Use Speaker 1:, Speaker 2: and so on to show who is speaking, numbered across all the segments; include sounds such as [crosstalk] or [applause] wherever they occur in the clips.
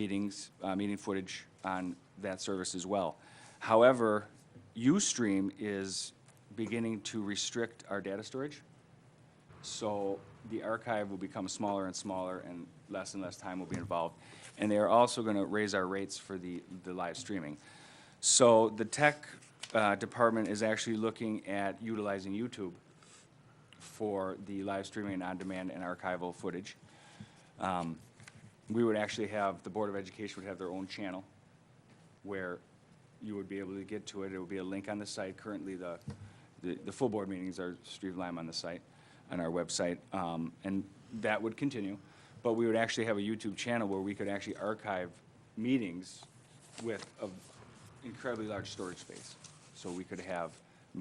Speaker 1: meetings, uh, meeting footage on that service as well. However, Ustream is beginning to restrict our data storage. So the archive will become smaller and smaller, and less and less time will be involved. And they are also going to raise our rates for the, the live streaming. So the tech uh, department is actually looking at utilizing YouTube for the live streaming and on-demand and archival footage. Um, We would actually have, the Board of Education would have their own channel where you would be able to get to it. It would be a link on the site. Currently, the, the, the full board meetings are streamed live on the site, on our website, um, and that would continue. But we would actually have a YouTube channel where we could actually archive meetings with an incredibly large storage space. So we could have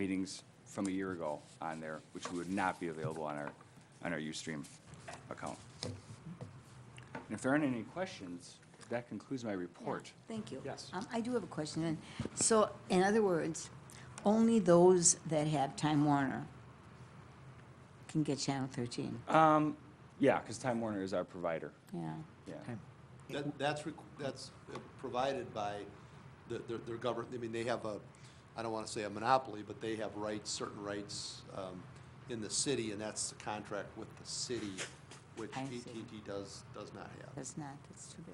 Speaker 1: meetings from a year ago on there, which would not be available on our, on our Ustream account. And if there aren't any questions, that concludes my report.
Speaker 2: Thank you.
Speaker 1: Yes.
Speaker 2: Um, I do have a question. then. So, in other words, only those that have Time Warner can get Channel 13,
Speaker 1: Um, yeah, because Time Warner is our provider,
Speaker 2: yeah.
Speaker 1: yeah.
Speaker 3: That, that's, requ- that's uh, provided by the- their, their government, I mean, they have a, I don't want to say a monopoly, but they have rights, certain rights um, in the city, and that's the contract with the city, which
Speaker 2: I
Speaker 3: at and
Speaker 2: see.
Speaker 3: t does, does not have.
Speaker 2: That's not, that's too bad.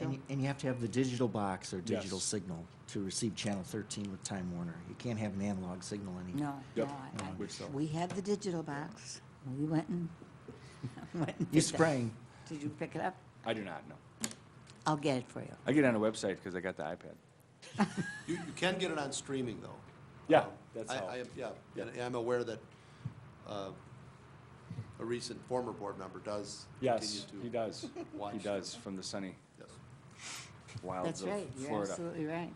Speaker 4: And you, and you have to have the digital box or digital
Speaker 1: Yes.
Speaker 4: signal to receive channel 13 with Time Warner. You can't have an analog signal anymore.
Speaker 2: No,
Speaker 1: Yep.
Speaker 2: no. I- I-
Speaker 1: Which-
Speaker 2: We have the digital box. We went and, went
Speaker 4: [laughs]
Speaker 2: and
Speaker 4: You
Speaker 2: did that.
Speaker 4: sprang.
Speaker 2: Did you pick it up?
Speaker 1: I do not know.
Speaker 2: I'll get it for you.
Speaker 1: I get on a website because I got the iPad.
Speaker 3: You, you can get it on streaming, though.
Speaker 1: Yeah,
Speaker 3: Um,
Speaker 1: that's
Speaker 3: I-
Speaker 1: how.
Speaker 3: I, yeah, and and I'm aware that uh, a recent former board member does
Speaker 1: Yes, he
Speaker 3: continue to.
Speaker 1: does. He
Speaker 3: watch
Speaker 1: does
Speaker 3: them.
Speaker 1: from the sunny
Speaker 3: Yes.
Speaker 1: wilds
Speaker 2: That's
Speaker 1: of
Speaker 2: right. You're
Speaker 1: Florida.
Speaker 2: absolutely right.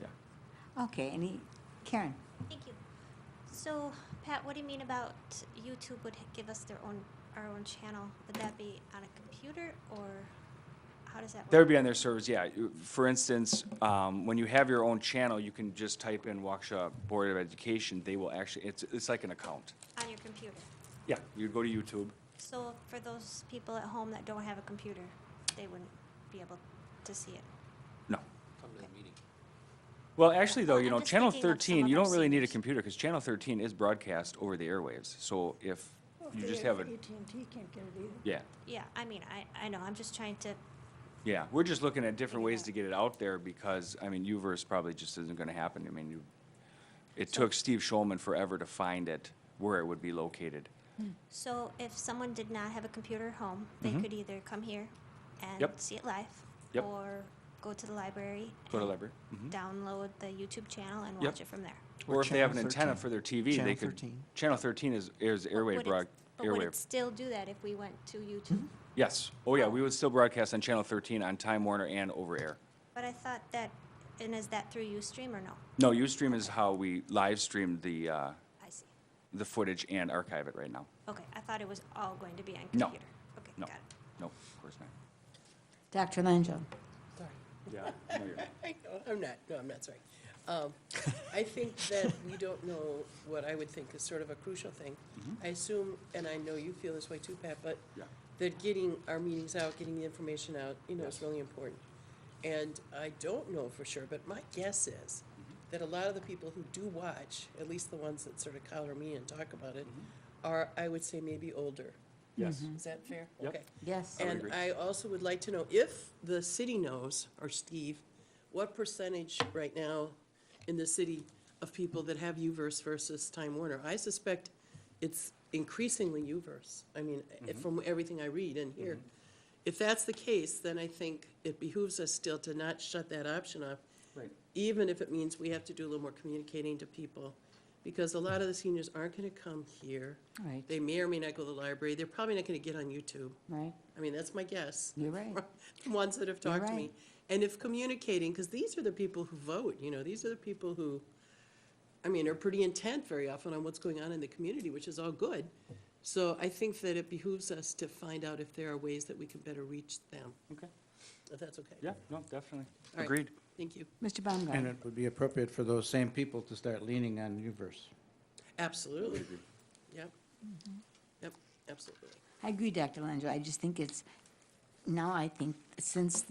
Speaker 1: Yeah.
Speaker 2: Okay, any, Karen?
Speaker 5: Thank you. So, Pat, what do you mean about YouTube would give us their own, our own channel? Would that be on a computer or how does that work?
Speaker 1: That would be on their servers, yeah. You- For instance, um, when you have your own channel, you can just type in Waukesha Board of Education. They will actually, it's, it's like an account.
Speaker 5: On your computer.
Speaker 1: Yeah. You go to YouTube.
Speaker 5: So for those people at home that don't have a computer, they wouldn't be able to see it.
Speaker 1: No.
Speaker 3: Come to the meeting.
Speaker 1: Well, actually, though,
Speaker 5: Well,
Speaker 1: you
Speaker 5: I'm
Speaker 1: know,
Speaker 5: just
Speaker 1: Channel
Speaker 5: thinking of some
Speaker 1: 13,
Speaker 5: of
Speaker 1: you
Speaker 5: our
Speaker 1: don't really need a
Speaker 5: seniors.
Speaker 1: computer because Channel 13 is broadcast over the airwaves. So if
Speaker 6: Well,
Speaker 1: you
Speaker 6: if
Speaker 1: just
Speaker 6: they-
Speaker 1: have a,
Speaker 6: AT&T can't get it either.
Speaker 1: yeah.
Speaker 5: Yeah, I mean, I, I know, I'm just trying to,
Speaker 1: Yeah, we're just looking at different ways
Speaker 5: Yeah.
Speaker 1: to get it out there because, I mean, UVerse probably just isn't gonna happen. I mean, you, it took Steve Schulman forever to find it, where it would be located.
Speaker 5: so if someone did not have a computer at home, they could either come here and
Speaker 1: Mm-hmm. Yep.
Speaker 5: see it live.
Speaker 1: Yep.
Speaker 5: Or go to the library.
Speaker 1: Go to
Speaker 5: and
Speaker 1: library. Mhm.
Speaker 5: Download the YouTube channel and
Speaker 1: Yep.
Speaker 5: watch it from there.
Speaker 4: Or
Speaker 1: Or if they have an
Speaker 4: Channel
Speaker 1: antenna
Speaker 4: 13.
Speaker 1: for their TV, they
Speaker 4: Channel
Speaker 1: could.
Speaker 4: 13.
Speaker 1: Channel thirteen is, is airwave
Speaker 5: Would it-
Speaker 1: broad,
Speaker 5: But would it
Speaker 1: airwave.
Speaker 5: still do that if we went to YouTube?
Speaker 1: Yes, oh yeah, we would still broadcast on channel thirteen on Time Warner and over air.
Speaker 5: But I thought that, and is that through Ustream or no?
Speaker 1: No, Ustream is how we live stream the, uh,
Speaker 5: I see.
Speaker 1: the footage and archive it right now.
Speaker 5: Okay, I thought it was all going to be on
Speaker 1: No.
Speaker 5: computer. Okay,
Speaker 1: No,
Speaker 5: got it.
Speaker 1: no, of course not.
Speaker 2: Dr. Langill?
Speaker 1: Yeah. [laughs] no, you're right.
Speaker 7: I know, I'm not, no, I'm not, sorry. Um, I think that we don't know what I would think is sort of a crucial thing. I assume, and I know you feel this way too, Pat, but
Speaker 1: Mm-hmm. Yeah.
Speaker 7: that getting our meetings out, getting the information out, you know, is really important. And I don't know for sure, but my guess is
Speaker 1: Mm-hmm.
Speaker 7: that a lot of the people who do watch, at least the ones that sort of collar me and talk about it,
Speaker 1: Mm-hmm.
Speaker 7: are, I would say, maybe older.
Speaker 1: Yes.
Speaker 7: Is that fair?
Speaker 1: Mm-hmm. Yep.
Speaker 7: Okay.
Speaker 2: Yes.
Speaker 1: would
Speaker 7: And
Speaker 1: agree.
Speaker 7: I also would like to know if the city knows, or Steve, what percentage right now in the city of people that have UVerse versus Time Warner? I suspect it's increasingly UVerse. I mean, eh, from everything I read and hear. If that's the case, then I think it behooves us still to not shut that option off.
Speaker 1: Right.
Speaker 7: Even if it means we have to do a little more communicating to people, because a lot of the seniors aren't gonna come here.
Speaker 2: Right.
Speaker 7: They may or may not go to the library. They're probably not gonna get on YouTube.
Speaker 2: Right?
Speaker 7: I mean, that's my guess.
Speaker 2: You're right.
Speaker 7: [laughs] The ones that have talked to me.
Speaker 2: right.
Speaker 7: And if communicating, because these are the people who vote, you know, these are the people who, I mean, are pretty intent very often on what's going on in the community, which is all good. So I think that it behooves us to find out if there are ways that we can better reach them,
Speaker 1: Okay,
Speaker 7: if that's okay.
Speaker 1: yeah, no, definitely,
Speaker 7: All right.
Speaker 1: agreed.
Speaker 7: Thank you.
Speaker 2: Mr.
Speaker 8: And
Speaker 2: Baumgart?
Speaker 8: it would be appropriate for those same people to start leaning on Uverse.
Speaker 7: Absolutely. Yep.
Speaker 2: Mm-hmm.
Speaker 7: Yep, absolutely.
Speaker 2: I agree, Dr. Langill. I just think it's, now I think, since